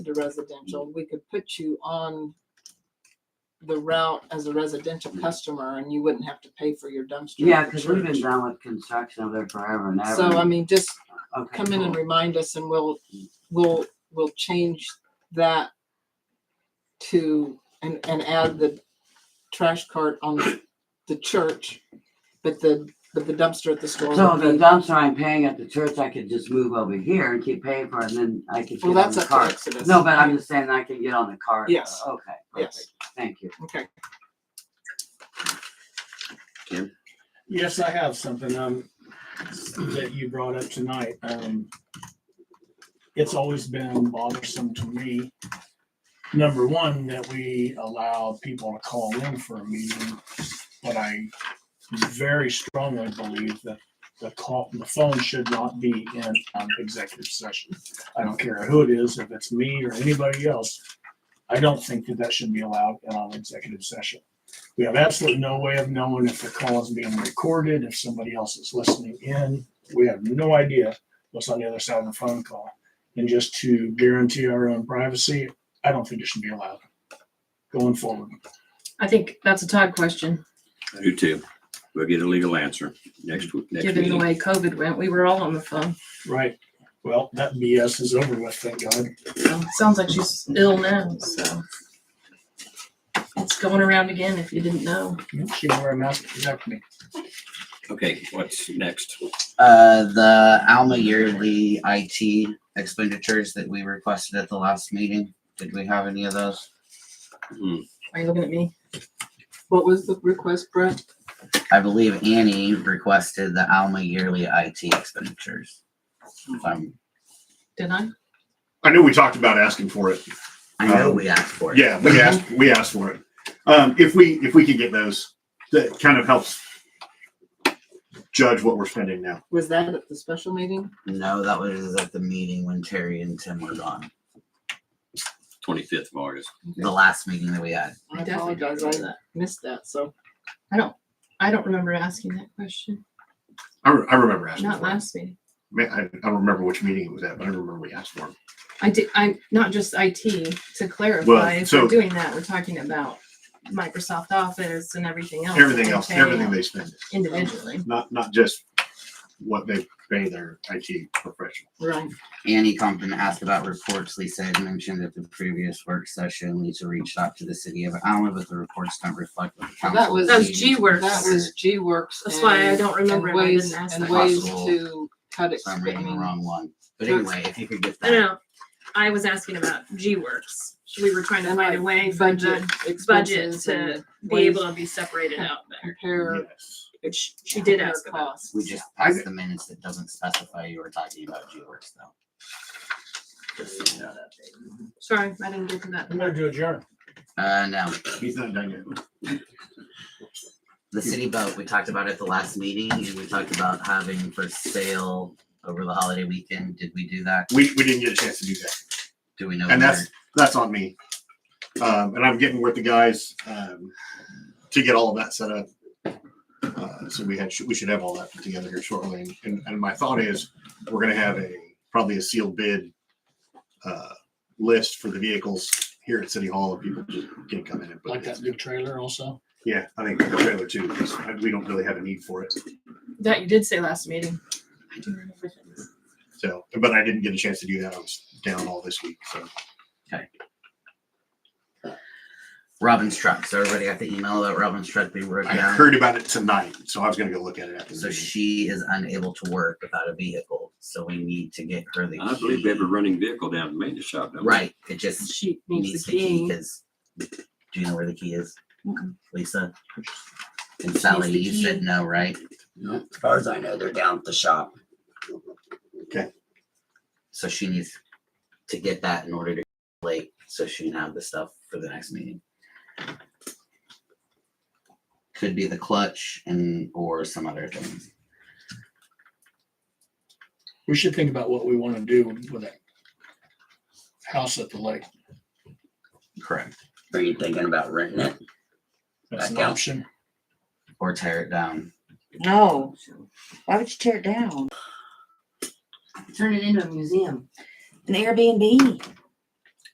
to residential, we could put you on the route as a residential customer and you wouldn't have to pay for your dumpster. Yeah, at the because we've been church. done with construction over there forever and ever. So I mean, just Okay, come in and cool. remind us and we'll, we'll, we'll change that to, and, and add the trash cart on the- the church, but the, but the dumpster at the store. So would the be- dumpster I'm paying at the church, I could just move over here and keep paying for it, and then I could get Well, on that's the up to cart. Exodus. No, but I'm just saying I can get on the cart. Yes. Okay, perfect. Yes. Thank you. Okay, Yes, I have something, um, that you brought up tonight. Um, it's always been bothersome to me. Number one, that we allow people to call in for a meeting, but I very strongly believe that the call, the phone should not be in, um, executive session. I don't care who it is, if it's me or anybody else. I don't think that that should be allowed in an executive session. We have absolutely no way of knowing if the call is being recorded, if somebody else is listening in. We have no idea what's on the other side of the phone call. And just to guarantee our own privacy, I don't think it should be allowed going forward. I think that's a Todd question, I do too. We'll get a legal answer next week, next given the meeting. way COVID went. We were all on the phone. Right. Well, that BS is over with, thank God. So, Sounds like she's ill now, so. It's going around again if you didn't know. She can wear a mask to protect me. Okay, what's next? Uh, the Alma yearly IT expenditures that we requested at the last meeting. Did we have any of those? Hmm, Are you looking at me? what was the request, Brett? I believe Annie requested the Alma yearly IT expenditures. If I'm, Did I? I knew we talked about asking for it. I know we asked for it. Yeah, we asked, we asked for it. Um, if we, if we could get those, that kind of helps judge what we're spending now. Was that at the special meeting? No, that was at the meeting when Terry and Tim were gone, Twenty-fifth of August. the last meeting that we had. I definitely don't apologize, remember I missed that, so. I don't remember asking that question. I, re- I remember asking Not for it. last meeting. Man, I, I don't remember which meeting it was at, but I remember we asked for it. I did, I, not just IT, to clarify, Well, if so- we're doing that, we're talking about Microsoft Office and everything else. that Everything they else, pay everything they spend, Individually. not, not just what they pay their IT professional. Right. Annie Compton asked about reports. Lisa had mentioned at the previous work session. Lisa reached out to the city of Alma, but the reports don't reflect what the Well, council. that was- That was is- G-Works. That was G Works. That's why I don't remember And if I ways, didn't ask and that ways Possible. to cut it. So I'm reading the wrong one. But Sure. anyway, if you could get No, that. no, I was asking about G-Works. We were trying to And find like a way for Budget, the budget expenses to and be able to be separated out there. compare. Yes. Which she did compare ask about. costs. We just I- passed the minutes that doesn't specify you were talking about G-Works though. Sorry, I didn't get to that. I'm gonna do a adjourn. Uh, no, He's not done yet. the city boat, we talked about at the last meeting and we talked about having for sale over the holiday weekend. Did we do that? We, we didn't get a chance to do that. Do we know? And that's- whether- that's on me. Um, and I'm getting with the guys um, to get all of that set up. Uh, so we had we should have all that put together here shortly. And, and my thought is we're going to have a probably a sealed bid uh, list for the vehicles here at City Hall, and people can come in and put Like it. that big trailer also. Yeah, I think the trailer too. because We don't really have a need for it. That you did say last meeting. I do remember that. So, but I didn't get a chance to do that. I was down all this week. So Robin's truck. So everybody got the email about Robin's truck being broken I down. heard about it tonight. So I was going to go look at it after. the So meeting. she is unable to work without a vehicle. So we need to get her the I believe we have a key. running vehicle down at the maintenance shop. don't we? Right, it just She needs the key because, do you know where the key is? Mm-mm. Lisa? And Sally, the you key. said no, right? No, as far as I know, they're down at the shop. So she needs to get that in order to late, so she can have the stuff for the next meeting. Could be the clutch and, or some other things. We should think about what we want to do with that house at the lake. Correct. Are you thinking about renting it? That's an Back out. option. Or tear it down. No, why would you tear it down? Turn it into a museum. An Airbnb.